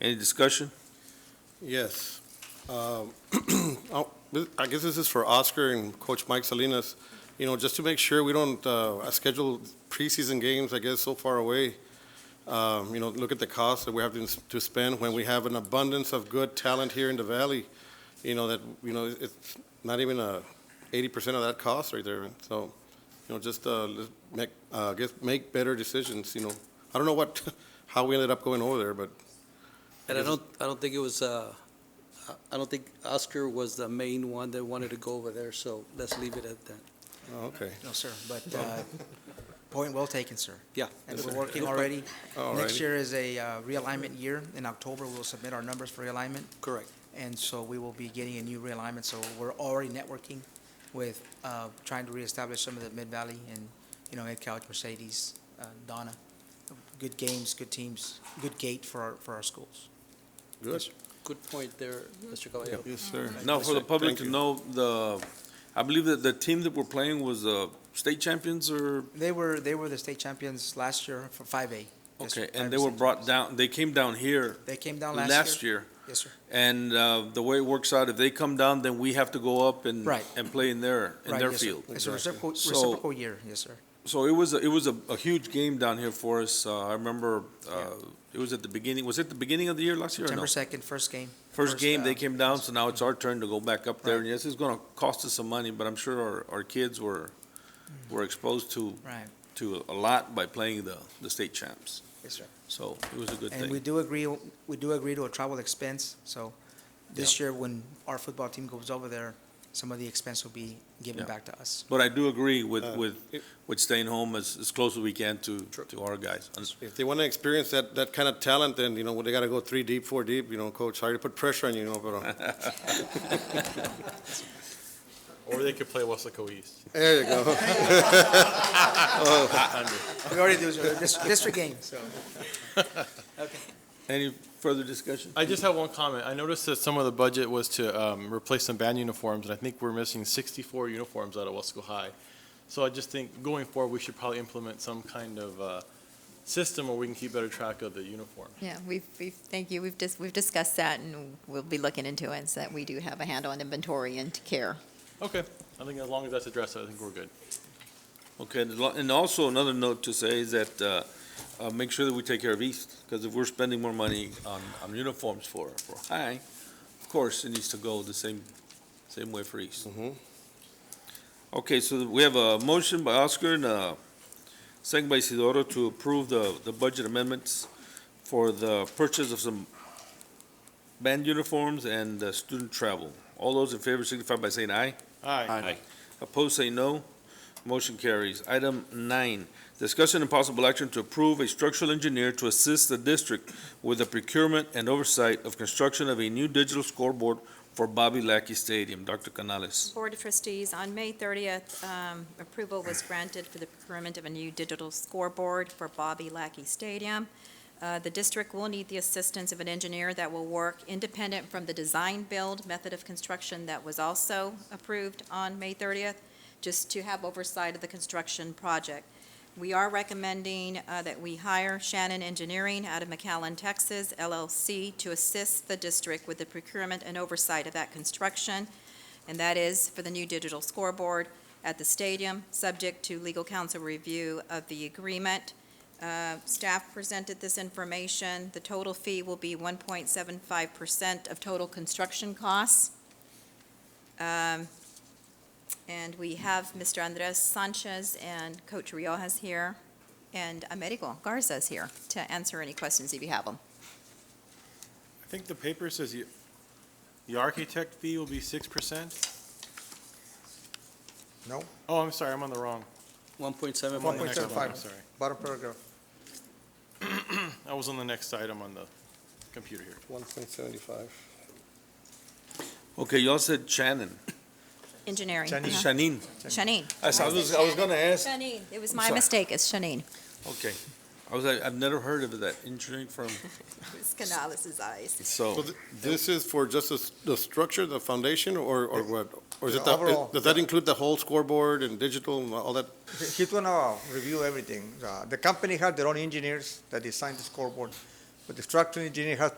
Any discussion? Yes. Um, oh, I guess this is for Oscar and Coach Mike Salinas. You know, just to make sure we don't uh, uh, schedule preseason games, I guess, so far away. Um, You know, look at the cost that we have to to spend when we have an abundance of good talent here in the valley. You know, that, you know, it's not even uh, 80% of that cost right there. So, you know, just uh, let's make, uh, I guess, make better decisions, you know. I don't know what, how we ended up going over there, but And I don't, I don't think it was, uh, I- I don't think Oscar was the main one that wanted to go over there, so let's leave it at that. oh, okay. No, sir, but uh, point well taken, sir. Yeah. And that's we're fine. working No problem. already. All right. Next year is a uh, realignment year. In October, we'll submit our numbers for realignment, Correct. and so we will be getting a new realignment. So we're already networking with, uh, trying to reestablish some of the Mid-Valley and, you know, Ed Couch, Mercedes, uh, Donna. Good games, good teams, good gate for our, for our schools. Good. Good point there, Mr. Caballero. Yes, sir. Now, for the public Thank to you. know, the, I believe that the team that we're playing was the state champions or, They were, they were the state champions last year for 5A. Yes, sir, okay, 5A and they were state brought champions. down, they came down here They came down last year. last year. Yes, sir. And uh, the way it works out, if they come down, then we have to go up and, Right. and play in their, in Right, their yes, sir. field. It's a Exactly. reciprocal, So- reciprocal year, yes, sir. So it was, a- it was a, a huge game down here for us. Uh, I remember, uh, it was at the beginning, was it the beginning of the year last year or no? September second, first game. First game, they uh, came down, so now it's our turn to go back up there. Right. And yes, it's gonna cost us some money, but I'm sure our, our kids were, were exposed to, Right, to a lot by playing the, the state champs. yes, sir. So it was a good And we thing. do agree, we do agree to a travel expense, so this year, when our football team goes over there, some of the expense will be given Yeah. back to us. But I do agree with, Uh, with, it- with staying home as, as close as we can to, True. to our guys. And- If they want to experience that, that kind of talent, then, you know, they got to go three deep, four deep, you know, coach, sorry to put pressure on you, you know, but, uh, Or they could play Wesco East. there you go. We already do, sir, Dis- district game, so. Any further discussion? I just have one comment. I noticed that some of the budget was to um, replace some band uniforms, and I think we're missing 64 uniforms out of Wesco High. So I just think going forward, we should probably implement some kind of uh, system where we can keep better track of the uniform. Yeah, we've, we've, thank you, we've just, we've discussed that, and we'll be looking into it, so that we do have a handle on inventory and to care. Okay, I think as long as that's addressed, I think we're good. Okay, and lo- and also another note to say is that, uh, uh, make sure that we take care of East, because if we're spending more money on, on uniforms for, for high, of course, it needs to go the same, same way for East. Mhm. Okay, so we have a motion by Oscar and a second by Isidoro to approve the, the budget amendments for the purchase of some band uniforms and uh, student travel. All those in favor signify by saying aye. Aye. Opposed, say no. Motion carries. Item nine, discussion and possible action to approve a structural engineer to assist the district with the procurement and oversight of construction of a new digital scoreboard for Bobby Lackey Stadium. Dr. Canales. Board of Trustees, on May 30th, um, approval was granted for the procurement of a new digital scoreboard for Bobby Lackey Stadium. Uh, The district will need the assistance of an engineer that will work independent from the design-build method of construction that was also approved on May 30th, just to have oversight of the construction project. We are recommending uh, that we hire Shannon Engineering out of McAllen, Texas, LLC, to assist the district with the procurement and oversight of that construction and that is for the new digital scoreboard at the stadium, subject to legal counsel review of the agreement. Uh, Staff presented this information. The total fee will be 1.75% of total construction costs. Um, And we have Mr. Andres Sanchez and Coach Riojas here, and Amerigo Garza's here to answer any questions if you have them. I think the paper says you, the architect fee will be six percent? No, Oh, I'm sorry, I'm on the wrong. One point seven I'm on the million. next one, 1.75. I'm sorry. bottom paragraph. I was on the next item on the computer here. One point seventy-five. Okay, y'all said Shannon. Engineering. Uh-huh. Shanine. Shanine. I was, I was- I was gonna ask. Shanine. It was I'm my sorry. mistake. It's Shanine. Okay. I was like, I've never heard of that engineering firm, It's Canales' eyes. So so. th- this is for just the, s- the structure, the foundation, or, or what? Or is The it, the- overall. does that include the whole scoreboard and digital and all that? He's gonna review everything. Uh, The company had their own engineers that designed the scoreboard, but the structural engineer has to